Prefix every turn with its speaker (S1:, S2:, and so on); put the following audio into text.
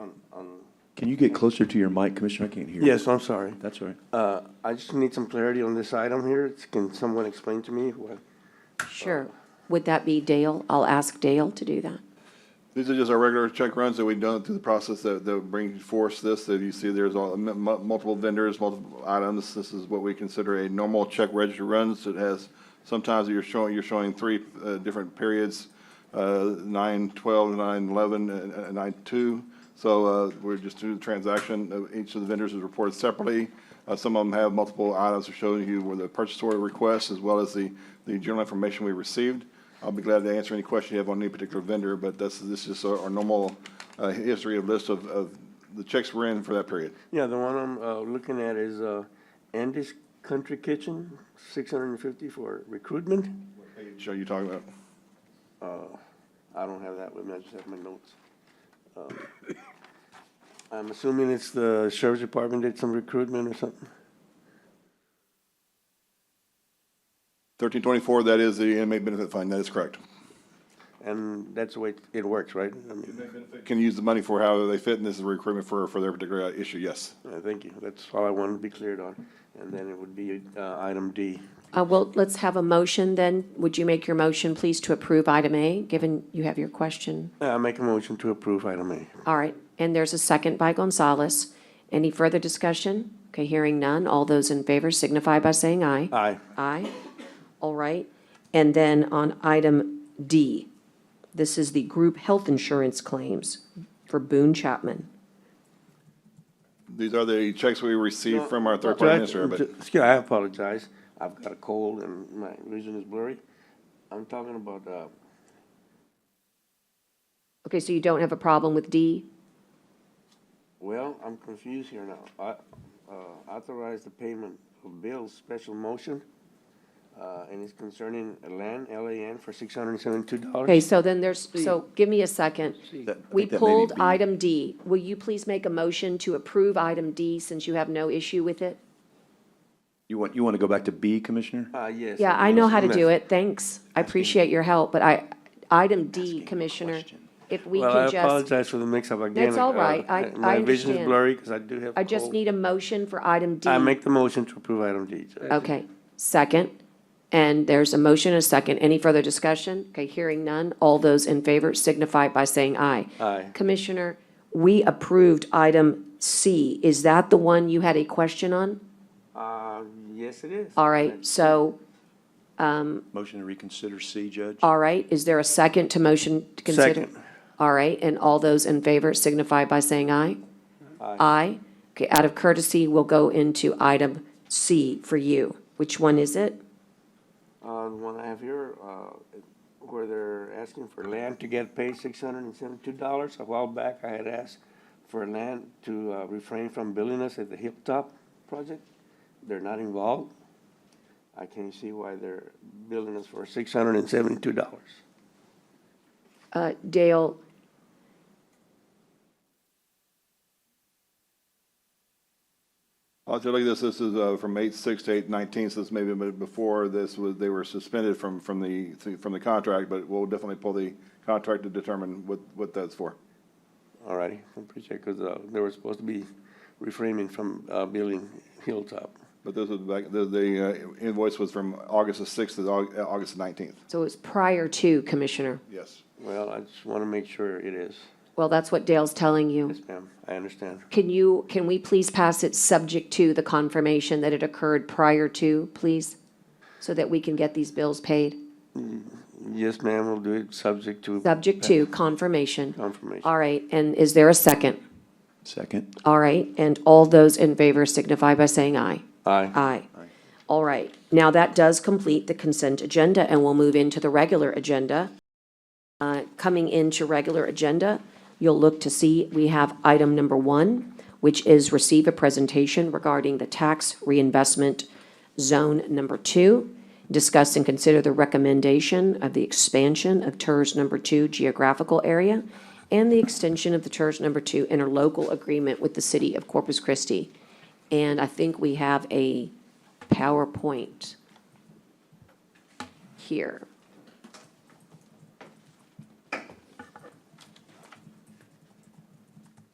S1: on- on-
S2: Can you get closer to your mic, Commissioner? I can't hear.
S1: Yes, I'm sorry.
S2: That's all right.
S1: Uh, I just need some clarity on this item here. It's- Can someone explain to me what?
S3: Sure. Would that be Dale? I'll ask Dale to do that.
S4: These are just our regular check runs that we've done through the process that, that bring forth this, that you see there's all, m- m- multiple vendors, multiple items. This is what we consider a normal check register runs. It has, sometimes you're showing, you're showing three, uh, different periods, uh, nine, twelve, nine, eleven, and, and nine, two. So, uh, we're just doing the transaction. Uh, Each of the vendors is reported separately. Uh, some of them have multiple items to show you where the purchase order requests as well as the, the general information we received. I'll be glad to answer any question you have on any particular vendor, but this, this is our our normal uh, history of list of, of the checks we're in for that period.
S1: Yeah, the one I'm uh, looking at is uh, Andy's Country Kitchen, 650 for recruitment.
S4: Show you talking about.
S1: Uh, I don't have that with me, I just have my notes. Um, I'm assuming it's the sheriff's department did some recruitment or something?
S4: Thirteen twenty-four, that is the inmate benefit fund, that is correct.
S1: And that's the way it works, right? I mean,
S4: Can use the money for however they fit, and this is recruitment for, for their particular uh, issue, yes.
S1: uh, Thank you, that's all I wanted to be cleared on. And then it would be uh, item D.
S3: Uh, well, let's have a motion then. Would you make your motion, please, to approve item A, given you have your question?
S1: Uh, I make a motion to approve item A.
S3: All right, and there's a second by Gonzalez. Any further discussion? Okay, hearing none. All those in favor signify by saying aye.
S1: Aye.
S3: Aye. All right. And then on item D, this is the group health insurance claims for Boone Chapman.
S4: These are the checks we received from our
S1: Judge,
S4: third-party administrator, but.
S1: ju- Excuse, I apologize. I've got a cold and my vision is blurry. I'm talking about, uh,
S3: Okay, so you don't have a problem with D?
S1: well, I'm confused here now. I, uh, authorize the payment of bills, special motion, uh, and it's concerning LAN, L-A-N, for six hundred and seventy-two dollars.
S3: Okay, so then there's, so give me a second.
S2: That- I think
S3: We
S2: that may be
S3: pulled
S2: B.
S3: item D. Will you please make a motion to approve item D since you have no issue with it?
S2: You want, you want to go back to B, Commissioner?
S1: Uh, yes.
S3: Yeah, I know how to do it. Thanks. I appreciate your help, but I, item D,
S2: a
S3: Commissioner,
S2: question.
S3: if we
S1: Well, I
S3: can just,
S1: apologize for the mix-up again.
S3: That's all
S1: Uh,
S3: right. I- I
S1: My vision is
S3: understand.
S1: blurry because I do have a cold.
S3: I just need a motion for item D.
S1: I make the motion to approve item D. Judge.
S3: Okay, second. And there's a motion, a second. Any further discussion? Okay, hearing none. All those in favor signify by saying aye.
S1: Aye.
S3: Commissioner, we approved item C. Is that the one you had a question on?
S1: Uh, yes, it is.
S3: All right, so,
S2: Motion to reconsider C, Judge?
S3: all right, is there a second to motion to consider?
S1: Second.
S3: All right, and all those in favor signify by saying aye. Aye. Okay, out of courtesy, we'll go into item C for you. Which one is it?
S1: Uh, the one I have here, uh, where they're asking for land to get paid six hundred and seventy-two dollars. A while back, I had asked for land to uh, refrain from billing us at the Hilltop project. They're not involved. I can't see why they're billing us for six hundred and seventy-two dollars.
S3: Uh, Dale,
S4: I'll tell you this, this is uh, from eight six to eight nineteen, so this may be a bit before this was, they were suspended from, from the, from the contract, but we'll definitely pull the contract to determine what, what that's for.
S1: All righty, I appreciate, because, uh, they were supposed to be refraining from, uh, billing Hilltop.
S4: But this was back, the, the uh, invoice was from August the sixth to Au- uh, August the nineteenth,
S3: so it's prior to, Commissioner.
S4: yes.
S1: Well, I just want to make sure it is.
S3: Well, that's what Dale's telling you.
S1: Yes, ma'am, I understand.
S3: Can you, can we please pass it subject to the confirmation that it occurred prior to, please? So that we can get these bills paid?
S1: Yes, ma'am, we'll do it subject to
S3: Subject to confirmation.
S1: confirmation.
S3: All right, and is there a second?
S2: Second.
S3: All right, and all those in favor signify by saying aye.
S1: Aye.
S3: Aye. All right, now that does complete the consent agenda, and we'll move into the regular agenda. Uh, Coming into regular agenda, you'll look to see, we have item number one, which is receive a presentation regarding the tax reinvestment zone number two, discuss and consider the recommendation of the expansion of TERS number two geographical area and the extension of the TERS number two interlocal agreement with the city of Corpus Christi. And I think we have a PowerPoint here.